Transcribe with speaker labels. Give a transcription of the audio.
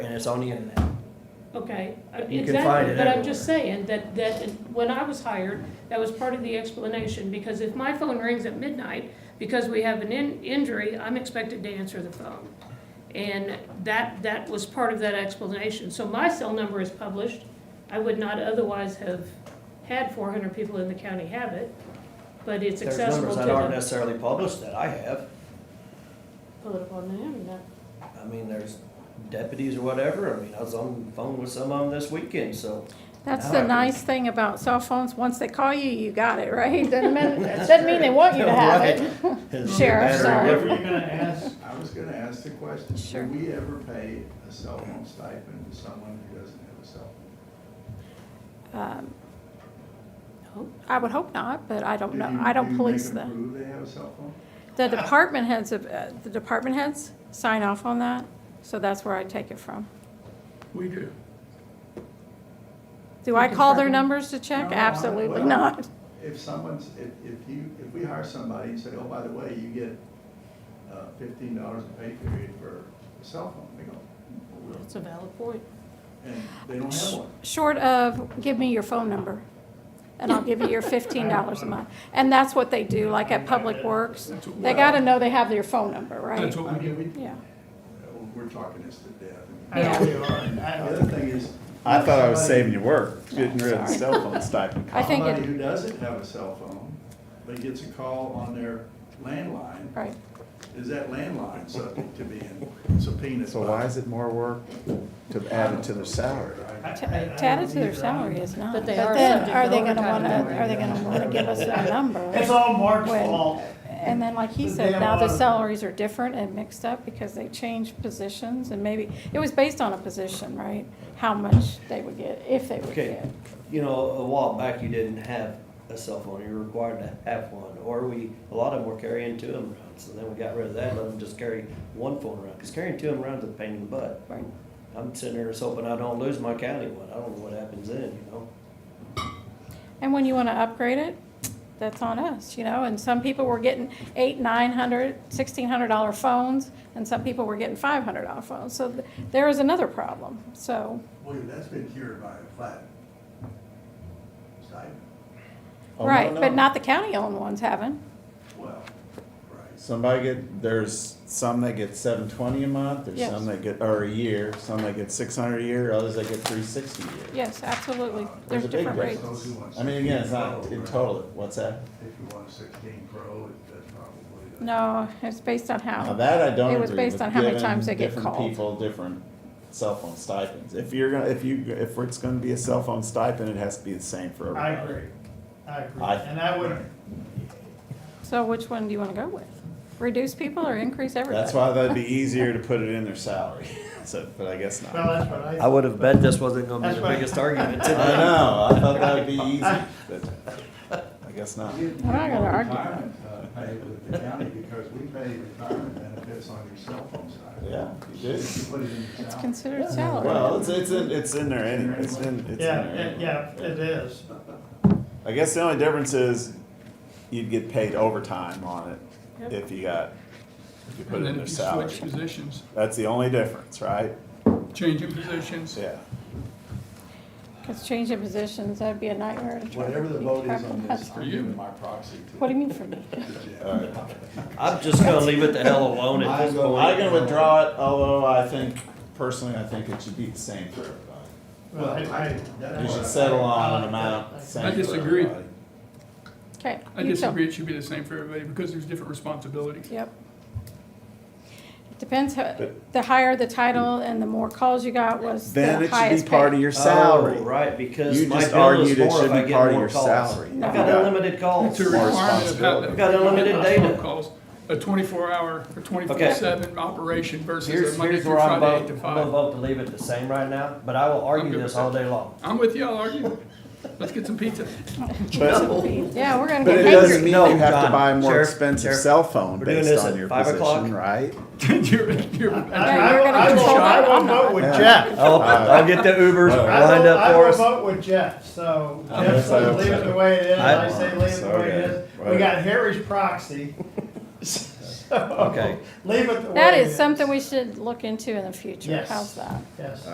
Speaker 1: and it's on the internet.
Speaker 2: Okay, uh,
Speaker 1: You can find
Speaker 2: exactly,
Speaker 1: it
Speaker 2: but I'm just saying that, that when I was hired, that was part of the explanation, because if my phone rings at midnight, because we have an in, injury, I'm expected to answer the phone. And that, that was part of that explanation, so my cell number is published, I would not otherwise have had four hundred people in the county have it, but it's
Speaker 1: There's
Speaker 2: accessible
Speaker 1: numbers
Speaker 2: to
Speaker 1: that aren't
Speaker 2: them.
Speaker 1: necessarily published that I have.
Speaker 2: Pull it up on the internet.
Speaker 1: I mean, there's deputies or whatever. I mean, I was on the phone with some of them this weekend, so.
Speaker 3: That's
Speaker 1: Now I
Speaker 3: the
Speaker 1: can-
Speaker 3: nice thing about cell phones, once they call you, you got it, right? Doesn't mean,
Speaker 1: doesn't mean they want you to have it. It's
Speaker 3: Sheriff,
Speaker 1: better
Speaker 3: sorry.
Speaker 4: Were you
Speaker 1: different.
Speaker 4: gonna ask,
Speaker 5: I was gonna ask the question,
Speaker 3: Sure.
Speaker 5: do we ever pay a cell phone stipend to someone who doesn't have a cell phone?
Speaker 3: Um, I would hope not, but I don't
Speaker 5: Do
Speaker 3: know,
Speaker 5: you-
Speaker 3: I don't police
Speaker 5: Do you make
Speaker 3: the,
Speaker 5: them prove they have a cell phone?
Speaker 3: the department heads, of- uh, the department heads sign off on that, so that's where I take it from.
Speaker 4: we do.
Speaker 3: Do I call their
Speaker 2: Department.
Speaker 3: numbers to check?
Speaker 5: No, I-
Speaker 3: Absolutely
Speaker 5: well,
Speaker 3: not.
Speaker 5: If someone's, if, if you, if we hire somebody and say, oh, by the way, you get uh, fifteen dollars a pay period for a cell phone, they go, "Well,
Speaker 2: That's a valid point.
Speaker 5: and they don't have one.
Speaker 3: Short of, give me your phone number, and I'll give you your fifteen dollars a month. And that's what they do, like at Public Works,
Speaker 4: That's what-
Speaker 3: they gotta know they have their phone number, right?
Speaker 4: That's
Speaker 5: I
Speaker 4: what we
Speaker 5: mean,
Speaker 4: do.
Speaker 5: we,
Speaker 3: Yeah.
Speaker 5: we're talking this to death.
Speaker 4: I know we are, and I
Speaker 5: The
Speaker 4: don't-
Speaker 5: other thing is.
Speaker 6: I thought I was
Speaker 5: somebody-
Speaker 6: saving you work, getting rid of the cell phone stipend.
Speaker 3: I think
Speaker 5: Somebody
Speaker 3: it,
Speaker 5: who doesn't have a cell phone, but gets a call on their landline,
Speaker 3: right,
Speaker 5: is that landline subject to being subpoenaed?
Speaker 6: So why is it more work to add it to their salary?
Speaker 4: I-
Speaker 3: T-
Speaker 4: I- I
Speaker 3: to add it
Speaker 4: don't
Speaker 3: to their
Speaker 4: either.
Speaker 3: salary uh, is not.
Speaker 2: But they are
Speaker 3: then
Speaker 2: subject
Speaker 3: Are
Speaker 2: to
Speaker 3: they gonna
Speaker 2: overtime
Speaker 3: wanna,
Speaker 5: and
Speaker 3: are they gonna wanna give us their
Speaker 4: It's
Speaker 3: number?
Speaker 4: all Mark's
Speaker 3: When-
Speaker 4: fault.
Speaker 3: And then, like he
Speaker 4: The
Speaker 3: said,
Speaker 4: damn
Speaker 3: now the
Speaker 4: auditor.
Speaker 3: salaries are different and mixed up because they changed positions and maybe, it was based on a position, right? How much they would get, if they would
Speaker 1: Okay.
Speaker 3: get.
Speaker 1: You know, a while back, you didn't have a cell phone. You were required to have one, or we, a lot of them were carrying two of them around. So then we got rid of that, let them just carry one phone around. Cause carrying two of them around is a pain in the butt.
Speaker 3: Right.
Speaker 1: I'm sitting there just hoping I don't lose my county one. I don't know what happens then, you know?
Speaker 3: And when you wanna upgrade it, that's on us, you know, and some people were getting eight, nine hundred, sixteen hundred dollar phones, and some people were getting five hundred dollar phones, so th- there is another problem, so.
Speaker 5: Well, that's been cured by a flat stipend.
Speaker 6: Oh, no,
Speaker 3: Right, but
Speaker 6: no.
Speaker 3: not the county-owned ones haven't.
Speaker 5: Well, right.
Speaker 6: Somebody get, there's some that get seven twenty a month, there's
Speaker 3: Yes.
Speaker 6: some that get, or a year, some that get six hundred a year, others that get three sixty a year.
Speaker 3: Yes, absolutely.
Speaker 6: There's
Speaker 3: There's
Speaker 6: a big
Speaker 3: different rates.
Speaker 6: difference.
Speaker 5: Those who want
Speaker 6: I mean, again, it's
Speaker 5: 16
Speaker 6: not
Speaker 5: Pro,
Speaker 6: in
Speaker 5: right?
Speaker 6: total, what's that?
Speaker 5: If you want a sixteen pro, it- that's probably. the-
Speaker 3: No, it's based on
Speaker 6: Now
Speaker 3: how,
Speaker 6: that I don't
Speaker 3: Oh. It was
Speaker 6: agree
Speaker 3: based
Speaker 6: with,
Speaker 3: on how many
Speaker 6: giving
Speaker 3: times they get
Speaker 6: different
Speaker 3: called.
Speaker 6: people different cell phone stipends. If you're gonna, if you, if it's gonna be a cell phone stipend, it has to be the same for
Speaker 4: I
Speaker 6: everybody.
Speaker 4: agree, I agree,
Speaker 6: I-
Speaker 4: and I would,
Speaker 3: so which one do you wanna go with? Reduce people or increase everybody?
Speaker 6: That's why that'd be easier to put it in their salary, so, but I guess not.
Speaker 4: well, that's what I.
Speaker 1: I would have bet this wasn't gonna be
Speaker 4: That's
Speaker 1: the
Speaker 4: right.
Speaker 1: biggest argument
Speaker 6: I
Speaker 1: today.
Speaker 6: know, I thought that would be easy, but I guess not.
Speaker 5: You-
Speaker 3: I'm not
Speaker 5: you
Speaker 3: gonna
Speaker 5: want
Speaker 3: argue.
Speaker 5: retirement, uh, Pay with the county because we pay retirement benefits on your cell phone stipend.
Speaker 6: Yeah, you do.
Speaker 5: You put it in your
Speaker 3: It's
Speaker 5: salary.
Speaker 3: considered salary.
Speaker 6: Well, it's, it's in, it's in there anyway, it's in, it's in
Speaker 4: Yeah,
Speaker 6: there.
Speaker 4: it-
Speaker 6: anyway.
Speaker 4: yeah, it is,
Speaker 6: I guess the only difference is you'd get paid overtime on it if you got, if you put
Speaker 7: And
Speaker 6: it
Speaker 7: then
Speaker 6: in their
Speaker 7: if you switch
Speaker 6: salary.
Speaker 7: positions,
Speaker 6: That's the only difference, right?
Speaker 7: changing positions,
Speaker 6: Yeah.
Speaker 3: Cause changing positions, that'd be a nightmare. to try to
Speaker 5: Whatever the
Speaker 3: keep
Speaker 5: vote
Speaker 3: track
Speaker 5: is on
Speaker 3: of
Speaker 5: this,
Speaker 3: that.
Speaker 5: I'm giving my proxy
Speaker 3: What do
Speaker 5: to
Speaker 3: you mean for me?
Speaker 5: the Jeff.
Speaker 6: All right.
Speaker 1: I'm just gonna leave it the hell alone at this
Speaker 5: I'm gonna-
Speaker 1: point.
Speaker 6: I'm gonna withdraw it, Oh, although I think, personally, I think it should be the same for everybody.
Speaker 4: well, I, I.
Speaker 6: You
Speaker 5: that's
Speaker 6: should
Speaker 5: what-
Speaker 6: settle on an amount, same for
Speaker 7: I
Speaker 6: everybody.
Speaker 7: disagree.
Speaker 3: Okay.
Speaker 7: I
Speaker 3: you tell-
Speaker 7: disagree, it should be the same for everybody, because there's different responsibilities.
Speaker 3: Yep. It Depends, how- the higher the title and the more calls you got was
Speaker 6: Then
Speaker 3: the
Speaker 6: it should
Speaker 3: highest
Speaker 6: be part of
Speaker 3: pay.
Speaker 6: your salary.
Speaker 1: Oh, right, because
Speaker 6: You
Speaker 1: my
Speaker 6: just
Speaker 1: bill is
Speaker 6: argued it
Speaker 1: more if
Speaker 6: should
Speaker 1: I
Speaker 6: be
Speaker 1: get
Speaker 6: part of
Speaker 1: more
Speaker 6: your
Speaker 1: calls.
Speaker 6: salary.
Speaker 1: I've
Speaker 3: No.
Speaker 1: got unlimited calls.
Speaker 7: It's a requirement of how.
Speaker 6: responsibility.
Speaker 1: We've got unlimited data.
Speaker 7: Calls, a twenty-four hour or twenty-four seven operation versus
Speaker 1: Here's,
Speaker 7: a Monday
Speaker 1: here's
Speaker 7: through
Speaker 1: where I'm
Speaker 7: Friday, eight
Speaker 1: voting,
Speaker 7: to
Speaker 1: I'm gonna
Speaker 7: five.
Speaker 1: vote to leave it the same right now, but I will argue
Speaker 7: good with
Speaker 1: this all
Speaker 7: that.
Speaker 1: day long.
Speaker 7: I'm with you, I'll argue. Let's get some pizza.
Speaker 6: But,
Speaker 3: Yeah, we're gonna
Speaker 6: but it
Speaker 3: get
Speaker 6: doesn't
Speaker 3: angry.
Speaker 6: mean
Speaker 1: No,
Speaker 6: you have
Speaker 1: John,
Speaker 6: to buy a more
Speaker 1: Sheriff,
Speaker 6: expensive
Speaker 1: Sheriff,
Speaker 6: cell phone
Speaker 1: we're doing
Speaker 6: based
Speaker 1: this
Speaker 6: on
Speaker 1: at
Speaker 6: your
Speaker 1: five o'clock.
Speaker 6: position, right?
Speaker 7: You're, you're,
Speaker 3: you're
Speaker 4: I, I will,
Speaker 3: gonna
Speaker 4: I will,
Speaker 3: control
Speaker 4: I
Speaker 3: that.
Speaker 4: will
Speaker 3: I'm not.
Speaker 4: vote with
Speaker 6: Yeah. Oh,
Speaker 4: Jeff.
Speaker 1: I'll, I'll get the Ubers
Speaker 6: Uh,
Speaker 4: I
Speaker 1: lined
Speaker 4: will-
Speaker 1: up for us.
Speaker 4: I will vote with Jeff, so
Speaker 6: I'm
Speaker 4: Jeff
Speaker 6: gonna
Speaker 4: says
Speaker 6: vote
Speaker 4: leave it
Speaker 6: with
Speaker 4: the way it is,
Speaker 1: I-
Speaker 4: I say leave it the way it
Speaker 6: Okay,
Speaker 4: is. We
Speaker 6: right.
Speaker 4: got Harry's proxy.
Speaker 1: Okay.
Speaker 4: Leave it the way
Speaker 3: That
Speaker 4: it
Speaker 3: is something we should look into in the future.
Speaker 4: Yes.
Speaker 3: How's that?
Speaker 4: Yes.